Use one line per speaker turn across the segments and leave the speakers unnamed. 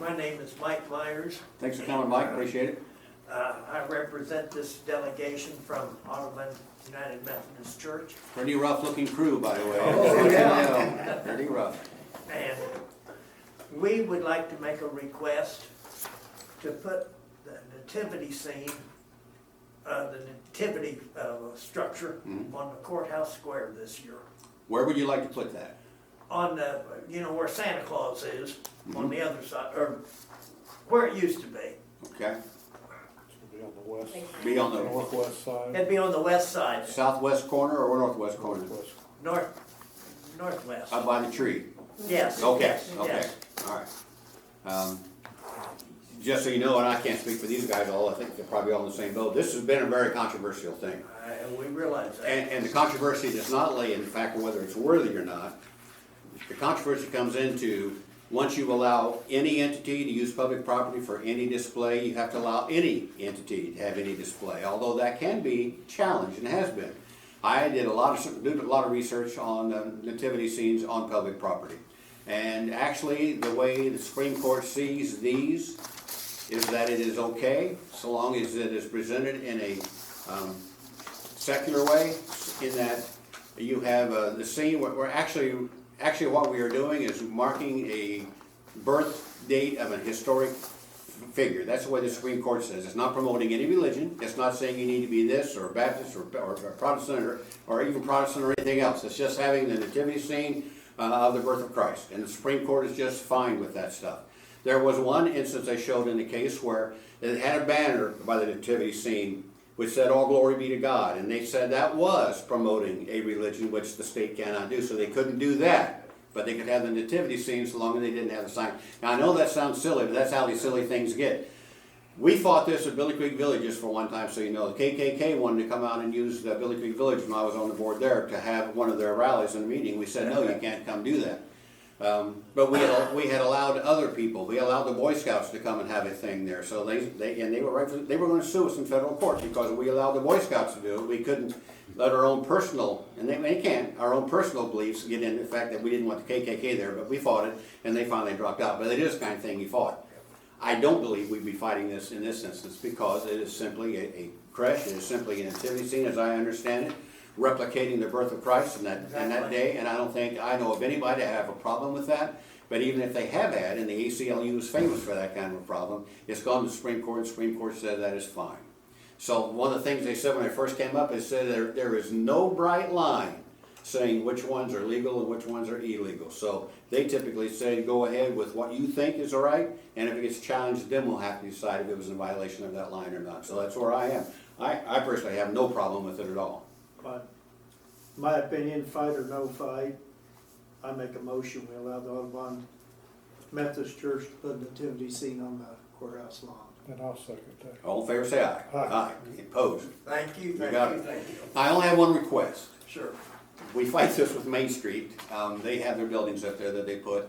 My name is Mike Myers.
Thanks for coming, Mike, appreciate it.
Uh, I represent this delegation from Audubon United Methodist Church.
Pretty rough looking crew, by the way.
Oh,
yeah. Pretty rough.
And we would like to make a request to put the nativity scene, uh, the nativity, uh, structure
Mhm.
on the courthouse square this year.
Where would you like to put that?
On the, you know, where Santa Claus is, on
Mm-hmm.
the other side, or where it used to be.
Okay,
It'll Be on the west,
be on the
northwest side.
It'd be on the west side,
southwest corner or northwest corner?
Northwest.
north, northwest.
Up by the tree?
Yes.
Uh, Okay,
yes,
okay,
yes.
all right. Um, Just so you know, and I can't speak for these guys all, I think they're probably all in the same boat, this has been a very controversial thing.
I- Uh, And we realize that.
And, and the controversy does not lay in the fact of whether it's worthy or not. The controversy comes into, once you allow any entity to use public property for any display, you have to allow any entity to have any display, although that can be challenged and has been. I did a lot of, did a lot of research on uh, nativity scenes on public property. And actually, the way the Supreme Court sees these is that it is okay, so long as it is presented in a, um, secular way in that you have uh, the scene where, where actually, actually what we are doing is marking a birth date of a historic figure. That's the way the Supreme Court says. It's not promoting any religion. It's not saying you need to be this or Baptist or, or Protestant or, or even Protestant or anything else. It's just having the nativity scene uh, of the birth of Christ. And the Supreme Court is just fine with that stuff. There was one instance I showed in the case where it had a banner by the nativity scene which said, All glory be to God. And they said that was promoting a religion which the state cannot do, so they couldn't do that. But they could have the nativity scene so long as they didn't have the sign. Now, I know that sounds silly, but that's how these silly things get. We fought this at Billy Creek Village just for one time, so you know. The KKK wanted to come out and use the Billy Creek Village when I was on the board there to have one of their rallies and a meeting. We said, No, you can't come do that. Um, but we had, we had allowed other people, we allowed the Boy Scouts to come and have a thing there, so they, they, and they were right, for- they were gonna sue us in federal court because we allowed the Boy Scouts to do it, we couldn't let our own personal, and they, they can't, our own personal beliefs get in, the fact that we didn't want the KKK there, but we fought it, and they finally dropped out, but it is the kind of thing you fought. I don't believe we'd be fighting this in this instance because it is simply a, a crash, it is simply an nativity scene, as I understand it, replicating the birth of Christ in that, in that
Exactly.
day, and I don't think, I know of anybody that have a problem with that. But even if they have had, and the ACLU is famous for that kind of a problem, it's gone to the Supreme Court, and the Supreme Court said that is fine. So one of the things they said when I first came up is said there, there is no bright line saying which ones are legal and which ones are illegal. So they typically say, go ahead with what you think is all right, and if it gets challenged, then we'll have to decide if it was in violation of that line or not. So that's where I am. I, I personally have no problem with it at all.
But my opinion, fight or no fight, I make a motion, we allow the Audubon Methodist Church to put a nativity scene on the courthouse lawn.
And I'll second that.
All in favor, say aye.
Aye.
Opposed?
Thank you,
You
thank
got
you,
it.
thank you.
I only have one request.
Sure.
we fight this with Main Street. Um, they have their buildings up there that they put,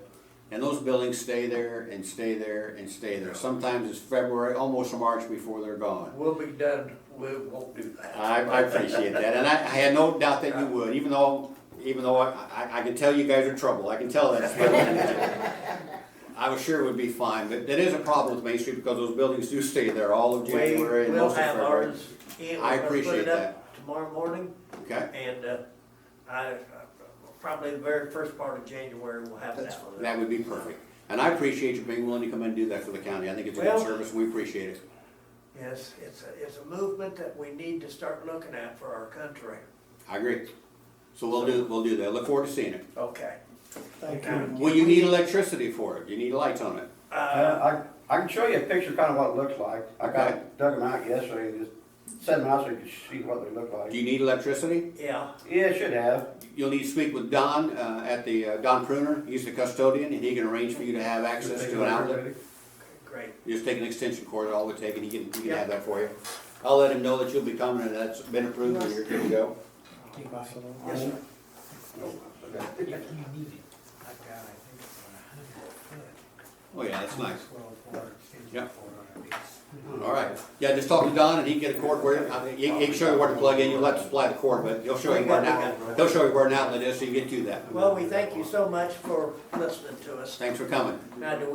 and those buildings stay there and stay there and stay there. Sometimes it's February, almost March before they're gone.
We'll be done, we won't do that.
I, I appreciate that, and I, I had no doubt that you would, even though, even though I, I, I can tell you guys are trouble, I can tell that. I was sure it would be fine, but that is a problem with Main Street because those buildings do stay there all of
We
January and
will
most of
have
February.
ours, in. We're
I
gonna put it
appreciate
up
that.
Tomorrow morning,
Okay,
and, uh, I, probably the very first part of January, we'll have that one.
that would be perfect. And I appreciate you being willing to come and do that for the county. I think it's a good
Well-
service, we appreciate it.
Yes, it's a, it's a movement that we need to start looking at for our country.
I agree. So we'll do, we'll do that. Look forward to seeing it.
Okay.
Thank you.
Well, you need electricity for it. You need lights on it.
Uh,
Uh, I, I can show you a picture, kind of what it looks like. I
Okay.
got, dug them out yesterday, and just set them out so you can see what they look
Do
like.
you need electricity?
yeah,
Yeah, it should have.
You'll need to speak with Don, uh, at the, uh, Don Pruner. He's the custodian and he can arrange for you to have access to an outlet.
great.
You just take an extension cord, all we take, and he can, he can
Yeah.
have that for you. I'll let him know that you'll be coming and that's been approved and you're good to go.
Yes, sir.
Oh, yeah, that's nice. Yep.
Yep.
All right. Yeah, just talk to Don and he can get a cord where, I mean, he, he can show you where to plug in. You'll have to supply the cord, but he'll show you where an outlet, he'll show you where an outlet is so you get to that.
Well, we thank you so much for listening to us.
Thanks for coming.
Now, do